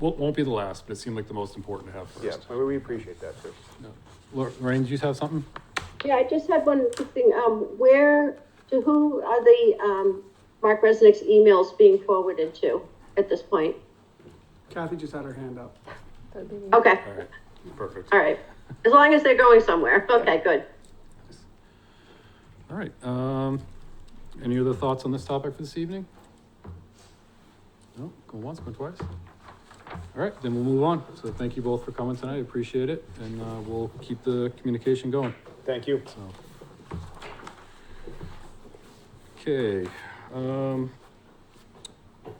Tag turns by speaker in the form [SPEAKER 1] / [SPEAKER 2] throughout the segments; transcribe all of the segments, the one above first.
[SPEAKER 1] won't, won't be the last, but it seemed like the most important to have
[SPEAKER 2] Yeah,
[SPEAKER 1] first.
[SPEAKER 2] well, we appreciate that too.
[SPEAKER 1] Lor- Lorraine, do you have something?
[SPEAKER 3] Yeah, I just had one quick thing, um, where, to who are the, um, Mark Resnick's emails being forwarded to at this point?
[SPEAKER 4] Kathy just had her hand up.
[SPEAKER 3] Okay,
[SPEAKER 1] All right, perfect.
[SPEAKER 3] all right, as long as they're going somewhere, okay, good.
[SPEAKER 1] All right, um, any other thoughts on this topic for this evening? No, go once, go twice. All right, then we'll move on. So thank you both for coming tonight, appreciate it, and, uh, we'll keep the communication going,
[SPEAKER 2] Thank you.
[SPEAKER 1] so. Okay, um,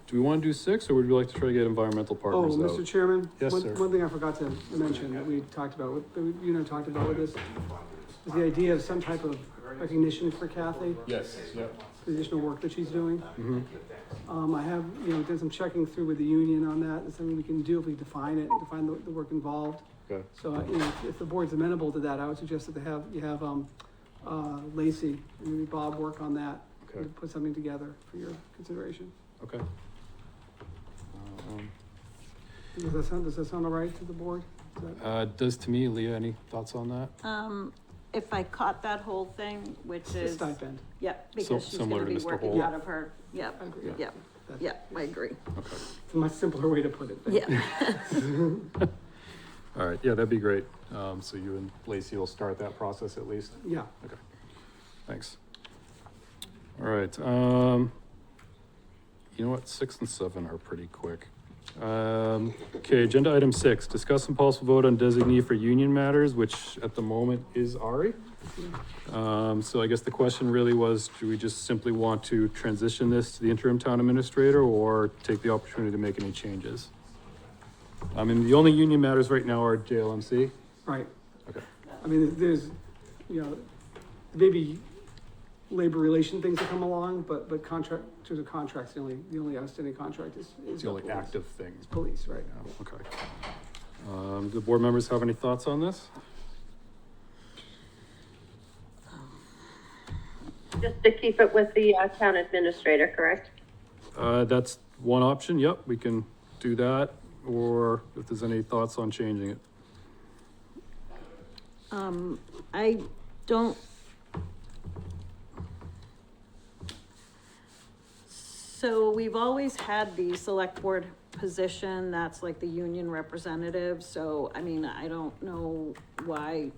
[SPEAKER 1] do we wanna do six, or would you like to try to get environmental
[SPEAKER 4] Oh,
[SPEAKER 1] partners
[SPEAKER 4] Mr.
[SPEAKER 1] out?
[SPEAKER 4] Chairman?
[SPEAKER 1] Yes,
[SPEAKER 4] one-
[SPEAKER 1] sir.
[SPEAKER 4] One thing I forgot to mention that we talked about, with- that you and I talked about with this, is the idea of some type of recognition for Kathy,
[SPEAKER 1] Yes, yep.
[SPEAKER 4] the additional work that she's doing.
[SPEAKER 1] Mm-hmm.
[SPEAKER 4] Um, I have, you know, done some checking through with the union on that, it's something we can do if we define it, define the, the work involved.
[SPEAKER 1] Okay,
[SPEAKER 4] So, uh, you know, if the board's amenable to that, I would suggest that they have, you have, um, uh, Lacey and maybe Bob work on that.
[SPEAKER 1] okay,
[SPEAKER 4] Put something together for your consideration.
[SPEAKER 1] okay. Um,
[SPEAKER 4] Does that sound, does that sound all right to the board? Is that-
[SPEAKER 1] Uh, does to me, Leah, any thoughts on that?
[SPEAKER 5] Um, if I caught that whole thing, which
[SPEAKER 4] It's a
[SPEAKER 5] is,
[SPEAKER 4] stipend.
[SPEAKER 5] yep,
[SPEAKER 1] Sim-
[SPEAKER 5] because she's
[SPEAKER 1] similar
[SPEAKER 5] gonna
[SPEAKER 1] to
[SPEAKER 5] be
[SPEAKER 1] Mr.
[SPEAKER 5] working
[SPEAKER 1] Hall.
[SPEAKER 5] out of her, yep,
[SPEAKER 4] agree.
[SPEAKER 5] yeah,
[SPEAKER 4] That's-
[SPEAKER 5] yeah, I agree,
[SPEAKER 1] Okay.
[SPEAKER 4] It's a much simpler way to put it. than-
[SPEAKER 5] yeah.
[SPEAKER 1] All right, yeah, that'd be great. Um, so you and Lacey will start that process at least.
[SPEAKER 4] Yeah,
[SPEAKER 1] Thanks. All right, um, you know what? Six and seven are pretty quick. Um, okay, agenda item six, discuss and possible vote on designee for union matters, which at the moment is Ari. Um, so I guess the question really was, do we just simply want to transition this to the interim town administrator or take the opportunity to make any changes? I mean, the only union matters right now are JLMC.
[SPEAKER 4] right.
[SPEAKER 1] Okay.
[SPEAKER 4] I mean, there's, you know, maybe labor relation things that come along, but, but contract, to the contracts, the only, the only outstanding contract is.
[SPEAKER 1] It's the only active thing.
[SPEAKER 4] Police, right.
[SPEAKER 1] Yeah, okay. Um, do board members have any thoughts on this?
[SPEAKER 3] Just to keep it with the uh, town administrator, correct?
[SPEAKER 1] Uh, that's one option, yep, we can do that, or if there's any thoughts on changing it.
[SPEAKER 5] Um, I don't. So we've always had the select board position, that's like the union representative, so I mean, I don't know why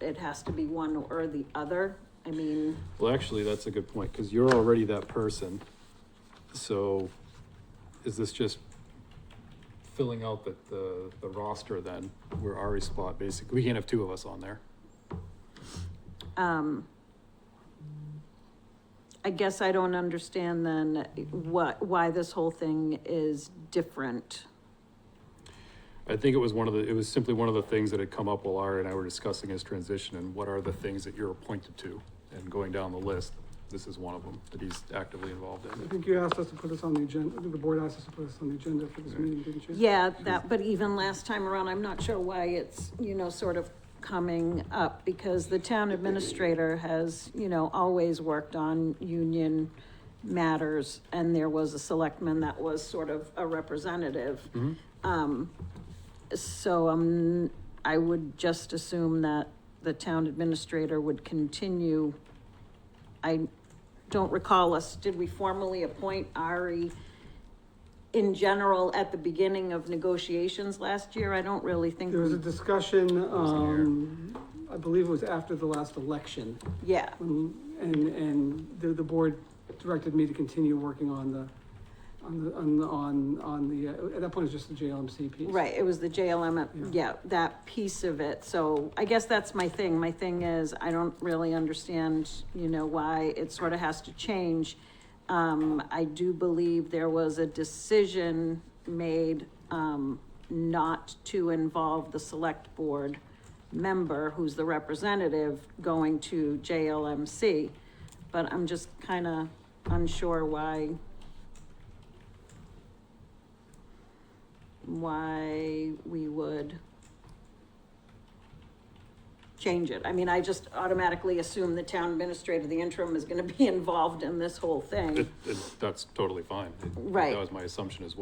[SPEAKER 5] it has to be one or the other, I mean,
[SPEAKER 1] Well, actually, that's a good point, because you're already that person. So is this just filling out the, the, the roster then, where Ari's spot, basically, we can't have two of us on there.
[SPEAKER 5] um, I guess I don't understand then what, why this whole thing is different.
[SPEAKER 1] I think it was one of the, it was simply one of the things that had come up while Ari and I were discussing his transition and what are the things that you're appointed to? And going down the list, this is one of them that he's actively involved
[SPEAKER 4] I
[SPEAKER 1] in.
[SPEAKER 4] think you asked us to put this on the agenda, the board asked us to put this on the agenda for this meeting, didn't you?
[SPEAKER 5] Yeah, that, but even last time around, I'm not sure why it's, you know, sort of coming up because the town administrator has, you know, always worked on union matters and there was a selectman that was sort of a representative. Um, so, um, I would just assume that the town administrator would continue. I don't recall us, did we formally appoint Ari? in general at the beginning of negotiations last year. I don't really think,
[SPEAKER 4] There was a
[SPEAKER 5] we-
[SPEAKER 4] discussion,
[SPEAKER 1] wasn't here.
[SPEAKER 4] um, I believe it was after the last election,
[SPEAKER 5] yeah,
[SPEAKER 4] Mm, And, and the, the board directed me to continue working on the, on the, on, the- on, on the, uh, at that point, it was just the JLMC piece.
[SPEAKER 5] right, it was the JLM, uh, yeah, that piece of it. So I guess that's my thing. My thing is, I don't really understand, you know, why it sort of has to change. Um, I do believe there was a decision made, um, not to involve the select board member, who's the representative, going to JLMC. But I'm just kind of unsure why why we would change it. I mean, I just automatically assume the town administrator, the interim, is gonna be involved in this whole thing.
[SPEAKER 1] It, it, that's totally fine. It-
[SPEAKER 5] Right.
[SPEAKER 1] That was my assumption as well.